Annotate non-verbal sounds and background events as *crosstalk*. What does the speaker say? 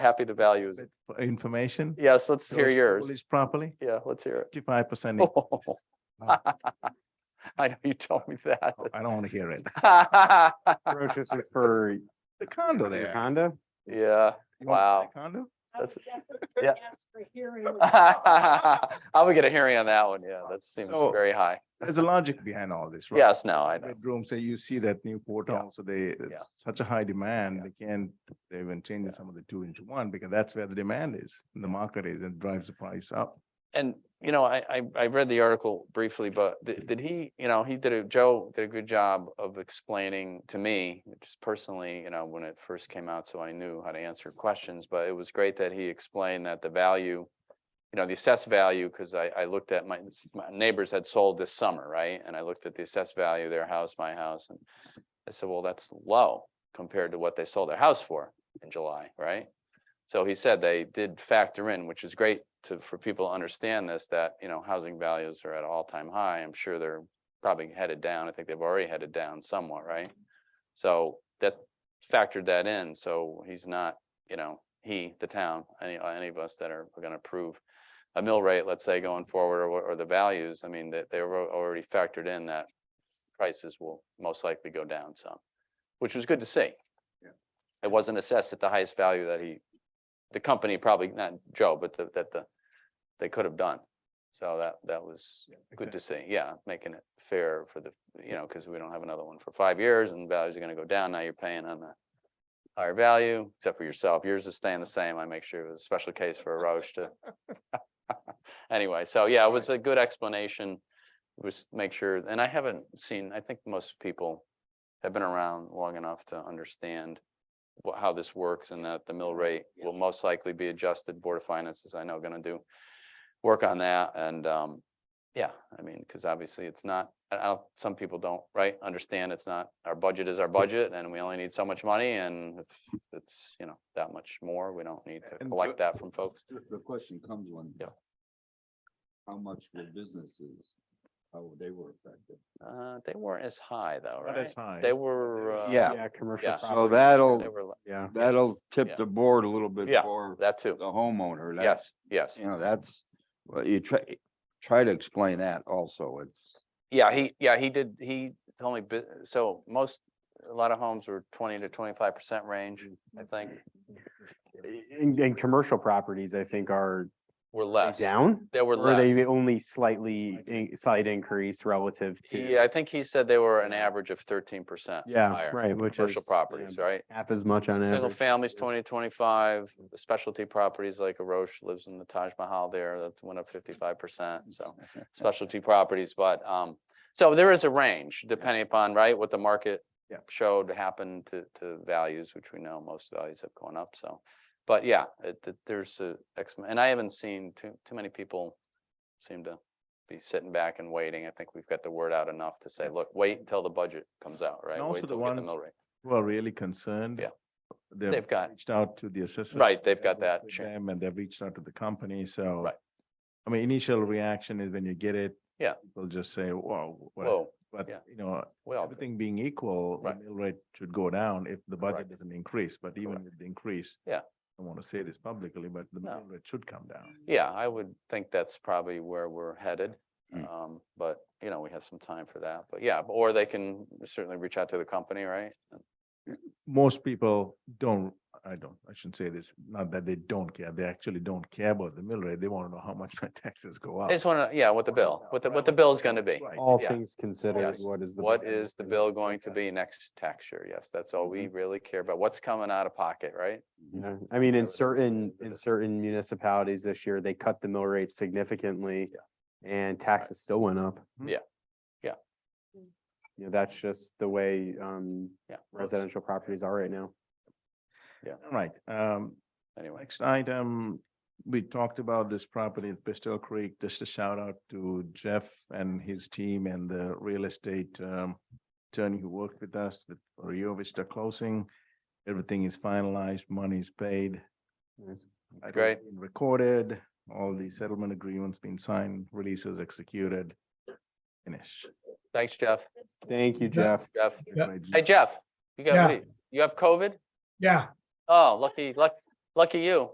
happy the values. bit for information. Yes, let's hear those yours. Oh, Published properly, Yeah, let's hear it. fifty-five percent. *laughs* I know you told me that. I don't want *laughs* to hear it. Ferocious is for The condo your there. Honda. Yeah, You want Wow. the Condo? I would That's- definitely *laughs* yeah. ask for *laughs* hearing. I would get a hearing on that one. Yeah, that seems So- very high. There's a logic behind all this, right? Yes, no, I know. Bedrooms, so you see that Newport Yeah. also, they, it's such a high demand, they can't, they even changing some of the two into one because that's where the demand is. and The market is and drives the price up. And, you know, I, I, I read the article briefly, but did, did he, you know, he did a, Joe did a good job of explaining to me, just personally, you know, when it first came out, so I knew how to answer questions, but it was great that he explained that the value, you know, the assessed value, because I, I looked at my, my neighbors had sold this summer, right? And I looked at the assessed value, their house, my house, and I said, well, that's low compared to what they sold their house for in July, right? So he said they did factor in, which is great to, for people to understand this, that, you know, housing values are at an all-time high. I'm sure they're probably headed down. I think they've already headed down somewhat, right? So that factored that in. So he's not, you know, he, the town, any, any of us that are going to approve a mill rate, let's say, going forward, or, or the values, I mean, that they were already factored in that prices will most likely go down some, which was good to see. It wasn't assessed at the highest value that he the company probably, not Joe, but the, that the, they could have done. So that, that was good to see, yeah, making it fair for the, you know, because we don't have another one for five years and values are gonna go down, now you're paying on the higher value, except for yourself, yours is staying the same, I make sure it was a special case for a Roche to. *laughs* Anyway, so yeah, it was a good explanation, was make sure, and I haven't seen, I think most people have been around long enough to understand wha- how this works and that the mill rate will most likely be adjusted. Board of Finance is, I know, gonna do work on that and, um, yeah, I mean, because obviously it's not, I- I, don't- some people don't, right, understand it's not, our budget is our budget and we only need so much money and if it's, you know, that much more, we don't need to And collect the- that from folks. The- The question comes when. Yeah. How much were businesses, how they were affected? Uh, they weren't as high though, Not right? as high. They were, uh, Yeah. yeah, Yeah, yeah. commercial So property. they that'll, were, li- Yeah. that'll Yeah. tip the board a little bit Yeah. for that too. the homeowner. That- Yes, yes. You know, that's, well, you try, try to explain that also. It's, Yeah, he, yeah, he did, he told me, bu- so most, a lot of homes were twenty to twenty-five percent range, Mm, I think, And, and commercial properties, I think, are were they less. down. There were Or are they less. only slightly, in- slight increase relative to? Yeah, I think he said they were an average of thirteen percent. Yeah, right, which is. Commercial properties, yeah, right? Half as much on average. Single families, twenty, twenty-five, The specialty properties like a Roche lives in the Taj Mahal there, that went up fifty-five percent, *laughs* so. Specialty properties, but, um, so there is a range depending upon, right, what the market Yeah. showed happened to, to values, which we know most values have gone up, so. But yeah, it, it- there's a, ex- and I haven't seen too, too many people seem to be sitting back and waiting. I think we've got the word out enough to say, look, wait until the budget comes out, right? And Wait also the till we get the ones- mill rate. Who are really concerned. Yeah. They've They've got- Reached out to the assessors. Right, they've I've got worked that with cha- Them and they've reached out to the company, so. Right. I mean, initial reaction is when you get it. Yeah. They'll just say, wow, whatever, Whoa, but, yeah. you know, well, everything being equal, the Right. mill rate should go down if the budget Correct. doesn't increase, but even Correct. with the increase. Yeah. I don't want to say this publicly, but the No. mill rate should come down. yeah, I would think that's probably where we're headed. Mm. Um, but, you know, we have some time for that, but yeah, or they can certainly reach out to the company, right? Most people don't, I don't, I shouldn't say this, not that they don't care, they actually don't care about the mill rate, they want to know how much my *laughs* taxes go up. Oh. I just want to, yeah, what the bill, what the, what the bill is going to be. Right. All Yeah. things considered, Yes. what is the? What is the bill going to be Mm-hmm. next tax year? Yes, that's all we really care about. What's coming out of pocket, right? Yeah, I mean, in would- certain, in certain municipalities this year, they cut the mill rate significantly and taxes still went up. Mhm. Yeah. Yeah. You know, that's just the way um Yeah. residential properties are right now. All right, um, Anyway, Next item, we talked about this property at Pistol Creek. Just a shout out to Jeff and his team and the real estate um, attorney who worked with us with for Rio Vista closing. Everything is finalized, money is paid. Nice. title's Great. been Recorded, all the settlement agreements been signed, releases executed. Finish. thanks, Jeff. Thank you, Jeff. Jeff, Right, hey, Jeff, you got, what do you you have COVID? Yeah, Oh, lucky, luck, Lucky you.